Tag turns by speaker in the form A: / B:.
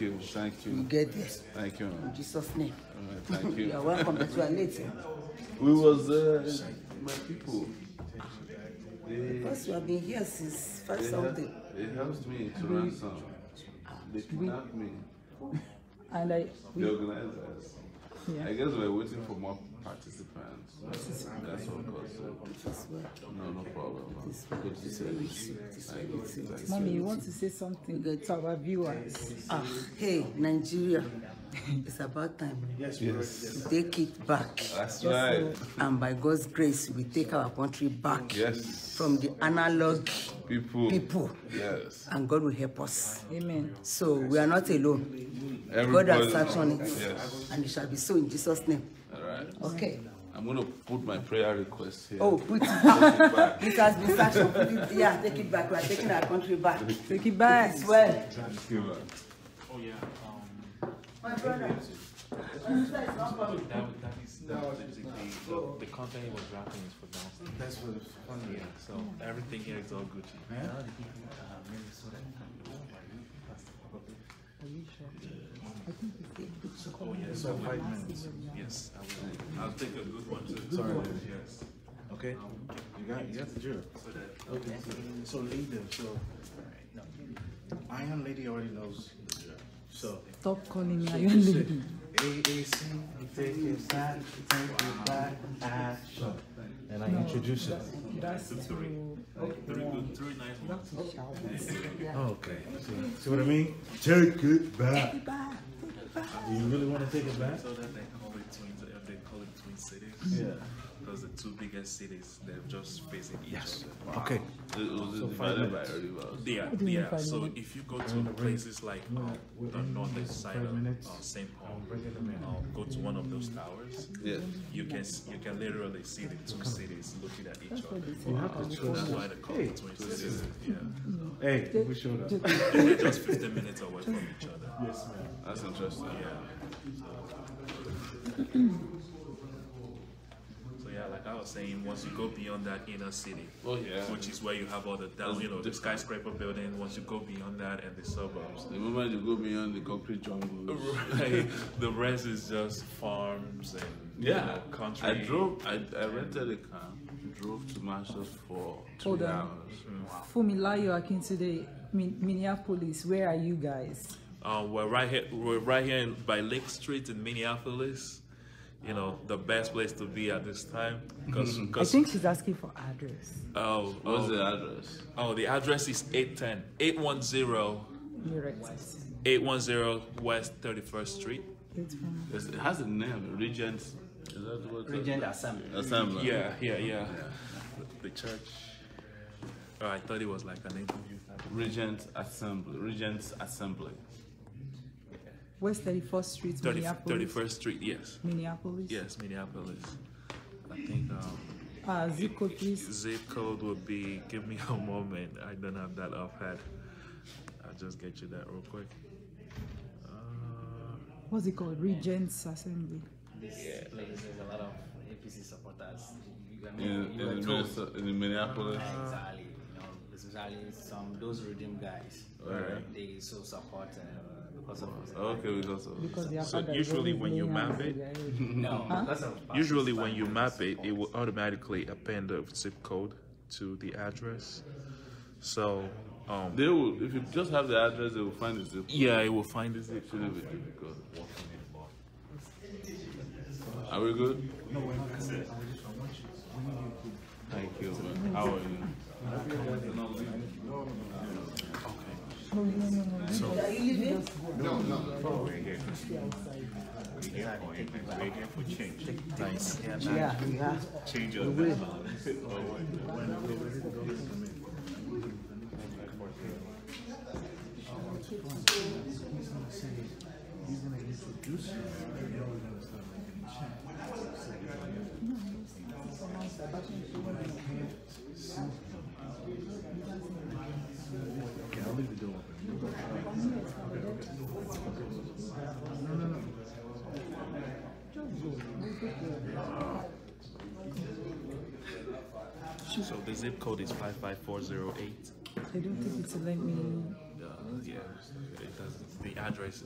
A: you, thank
B: You
A: you,
B: get this.
A: thank you.
B: In Jesus' name.
A: All right, Thank
B: You are
A: you.
B: welcome, but you are late. eh?
A: We was uh, my people. They,
B: Because you have been here since five
A: they,
B: something.
A: hel- they helped me to ransom. They kidnapped me.
C: And I,
A: The
C: we,
A: organizers.
C: yeah.
A: I guess we're waiting for more participants. That's what caused it.
B: It is well.
A: No, no problem. ma'am.
B: This one,
A: Good to
B: this
A: see
B: one,
A: you.
B: this one, this
A: Thank
B: one,
A: you.
B: this one, this
C: Mommy,
B: one.
C: you want to say something to our viewers?
B: Ah, hey, Nigeria, it's about time
A: Yes,
B: to take it back.
A: that's right.
B: And by God's grace, we take our country back
A: Yes,
B: from the analog
A: people.
B: people,
A: Yes,
B: and God will help us.
C: Amen.
B: So we are not alone. God
A: everybody.
B: has sat on it,
A: Yes,
B: and it shall be so in Jesus' name.
A: all right.
B: Okay.
A: I'm gonna put my prayer request here.
B: Oh, put it
A: Take
B: back.
A: it back.
B: It has been such a put it yeah, take it back. We are taking our country back.
C: Take it back.
B: It's well.
A: Thank you, ma'am.
D: Oh yeah, um,
B: My brother,
D: that, that is, that, the, the, the, the content he was wrapping is for downstairs. That's what it's funny. Yeah, so everything here is all Gucci. Oh yes, so five minutes. Yes, I will. I'll take a good one too. Sorry. Yes.
E: Okay,
D: Um,
E: you got, you got the drill. Okay, so lead them, so. Iron Lady already knows the drill, so.
C: Stop calling me Iron Lady.
E: AAC, take it back, take it back, action. And I introduce it.
C: That's to,
D: Three good, three nice ones.
E: Okay, see- see what I mean? Take it back.
C: Take it back.
E: Do you really wanna take it back?
D: So that they call it twin, uh, they call it twin cities.
E: Yeah.
D: Because the two biggest cities, they're just facing each other.
E: Okay.
A: It was divided by rivers.
D: Yeah,
C: do you mean
D: yeah.
C: five
D: So
C: minutes?
D: if you go to places like um,
E: we're
D: the
E: in
D: northern
E: just
D: side
E: five
D: of
E: minutes.
D: uh, St. Paul,
E: bring it a minute.
D: um, go to one of those towers,
A: Yes.
D: you can s- you can literally see the two cities looking at each
C: What
D: other.
C: they say.
D: So that's why they call
E: Hey,
D: it twin cities. Yeah,
E: Hey, we showed up.
D: they're just 15 minutes away from each other.
E: Yes, ma'am.
A: That's interesting.
D: So yeah, like I was saying, once you go beyond that inner city,
A: Oh, yeah.
D: which is where you have all the down, you know, the
A: different.
D: skyscraper building. Once you go beyond that and the suburbs,
A: The moment you go beyond the concrete jungle.
D: Right. the rest is just farms and you know, country.
A: I drove. I, I rented a car. Drove to Marshall for two
C: Hold on.
A: hours.
C: Fumilayo Akintunde, Min- Minneapolis, where are you guys?
D: Um, we're right here. We're right here in, by Lake Street in Minneapolis. You know, the best place to be at this time because
C: I think she's asking for address.
D: oh,
A: What was
D: oh,
A: the address?
D: oh, the address is 810 810
C: You're right. sis.
D: 810 West 31st Street.
C: It's from-
A: It's, it has a name. Regent. Is that what?
F: Regent Assembly.
A: Assembly.
D: Yeah, yeah, yeah. The church. Oh, I thought it was like an interview. type of-
A: Regent Assembly. Regent's Assembly.
C: West 31st Street,
D: 30,
C: Minneapolis.
D: 31st Street, yes.
C: Minneapolis.
D: Yes, Minneapolis. I think um,
C: Uh, zip code, please.
D: Zip code would be, give me a moment. I don't have that offhand. I'll just get you that real quick. Uh,
C: What's it called? Regents Assembly.
F: This place there's a lot of APC supporters. You, I mean,
A: In,
F: you were
A: in,
F: told.
A: Minnesota, in Minneapolis.
F: Exactly. You know, especially some those redeem guys.
A: Alright.
F: They so support uh, because of
A: Okay, because of
C: Because their
D: So
C: father is
D: usually
C: always
D: when you
C: laying hands
D: map
C: on
D: it-
C: their head.
F: no because of past
D: usually, when you
F: experience.
D: map it, it will automatically append the zip code to the address. So, um,
A: they will. If you just have the address, they will find the zip.
D: yeah, it will find the zip
A: It shouldn't be difficult. Are we good? Thank you. Man. How are you?
C: Oh, No, no, no, no.
B: are you leaving? Yeah, yeah.
D: So the zip code is five five four zero eight.
C: I don't think it's a let me.
D: Yeah, it doesn't. The address